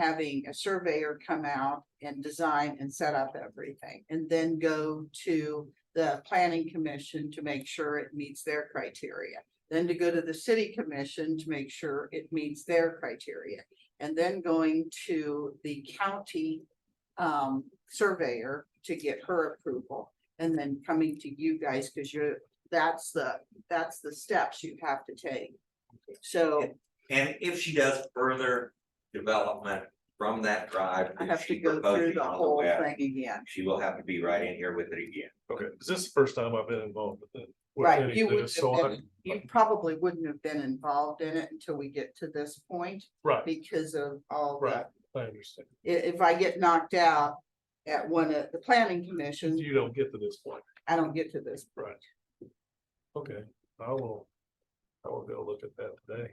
having a surveyor come out and design and set up everything. And then go to the planning commission to make sure it meets their criteria. Then to go to the city commission to make sure it meets their criteria. And then going to the county um surveyor to get her approval. And then coming to you guys, because you're, that's the, that's the steps you have to take. So And if she does further development from that drive. I if have to she go through proposes the on whole web, thing again. She will have to be right in here with it again. Okay, 'cause this is the first time I've been involved with it. with Right, any you of wouldn't this, have so been- I'm- You probably wouldn't have been involved in it until we get to this point Right, because of all the, right, i- I understand. if I get knocked out at one of the planning Mm-hmm. commission, You don't get to this point, I don't get to this. right? Okay, I will, I will go look at that today.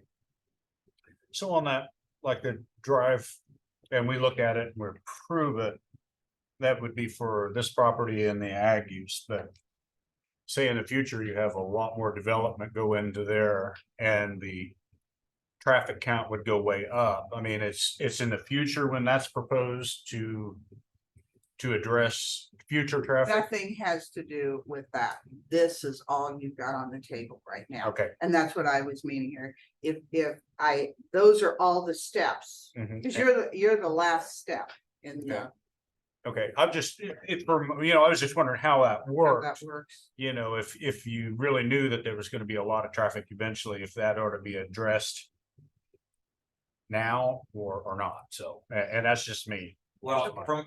So on that, like the drive, and we look at it and we approve it. That would be for this property and the ag use, but. Say in the future, you have a lot more development go into there and the. Traffic count would go way up. I mean, it's, it's in the future when that's proposed to. To address future traffic. Nothing has to do with that. This is all you've got on the table right now. Okay. And that's what I was meaning here. If, if I, those are all the steps. mhm. Cause you're, the you're the last step in the, Yeah. Okay, I'm just, it, for- you know, I was just wondering how that how works. that works. you know, if, if you really knew that there was gonna be a lot of traffic eventually, if that ought to be addressed now or, or not, so, a- and, that's just me. Well, from,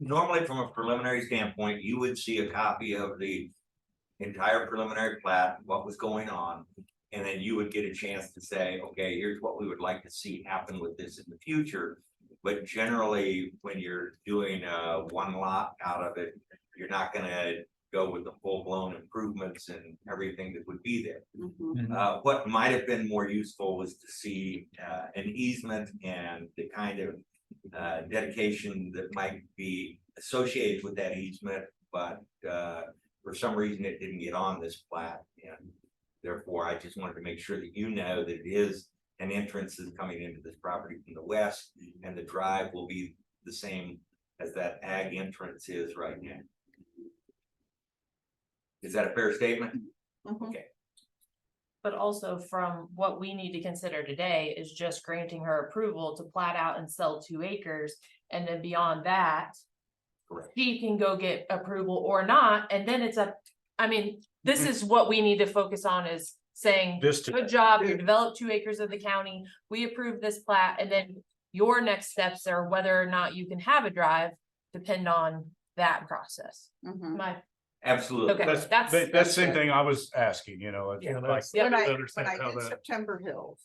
normally from a preliminary standpoint, you would see a copy of the. Entire preliminary plat, what was going on, and then you would get a chance to say, okay, here's what we would like to see happen with this in the future. But generally, when you're doing uh one lot out of it, you're not gonna go with the full blown improvements and everything that would be there. Mhm. Uh, what might have been more useful was to see, uh, an easement and the kind of. Uh, dedication that might be associated with that easement, but, uh, for some reason it didn't get on this plat. And therefore, I just wanted to make sure that you know that it is an entrance is coming into this property from the west. And the drive will be the same as that ag entrance is right now. Is that a fair statement? Mhm. But also from what we need to consider today is just granting her approval to plat out and sell two acres. And then beyond that, Correct. she can go get approval or not, and then it's a, I mean, this is what we need to focus on is saying, This, to- good job, you developed two acres of the county, we approve this plat, and then your next steps are whether or not you can have a drive, depend on that process. Mhm. My, Absolutely. Okay. that's, that's- that- that's the same thing I was asking, you know, it's Yeah, like, that's- When I I, don't when understand I how did that- September Hills,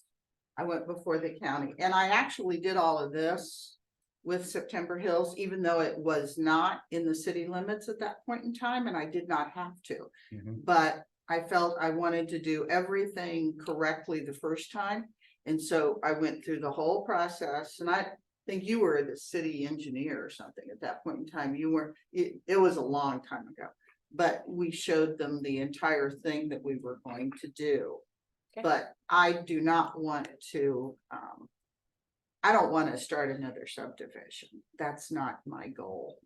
I went before the county and I actually did all of this. With September Hills, even though it was not in the city limits at that point in time and I did not have to. Mhm. But I felt I wanted to do everything correctly the first time. And so I went through the whole process and I think you were the city engineer or something at that point in time. You were, it, it was a long time ago. But we showed them the entire thing that we were going to do. Okay. But I do not want to, um. I don't want to start another subdivision. That's not my goal.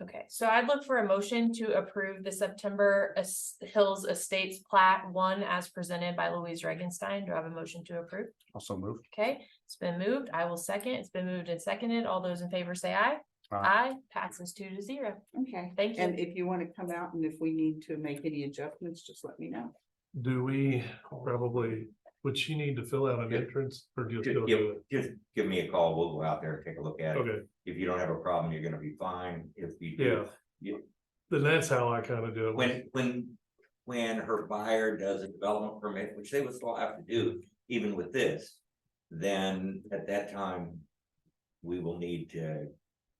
okay, so I'd look for a motion to approve the September Es- Hills Estates plat one as presented by Louise Regenstein. Do I have a motion to approve? also move. Okay, it's been moved. I will second. It's been moved and seconded. All those in favor say aye. Aye. Aye, passes two to zero. Okay. Thank And you. if you want to come out and if we need to make any adjustments, just let me know. Do we probably, would she need to fill out an Yeah. entrance or just Just go give, do it? just give me a call, we'll go out there and take a look at it. Okay, If you don't have a problem, you're gonna be fine, if you do. yeah. Yeah. Then that's how I kind of do it. When, when, when her buyer does a development permit, which they would still have to do, even with this. Then at that time, we will need to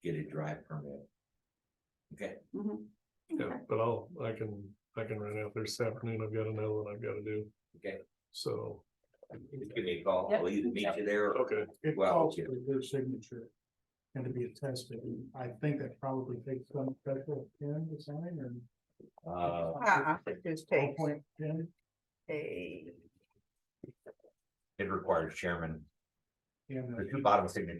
get a drive permit. Mhm. Yeah, Okay. but I'll, I can, I can run out there this afternoon. I've got another one I've got to do. Okay. So, Just Give me a call, I'll either meet you there, or okay, It Well, calls yeah. for their signature. And to be attested, and I think that probably takes some special pen to sign or. uh, Uh-uh, it just takes Ballpoint pen, a- it requires chairman and. uh, the bottom signature.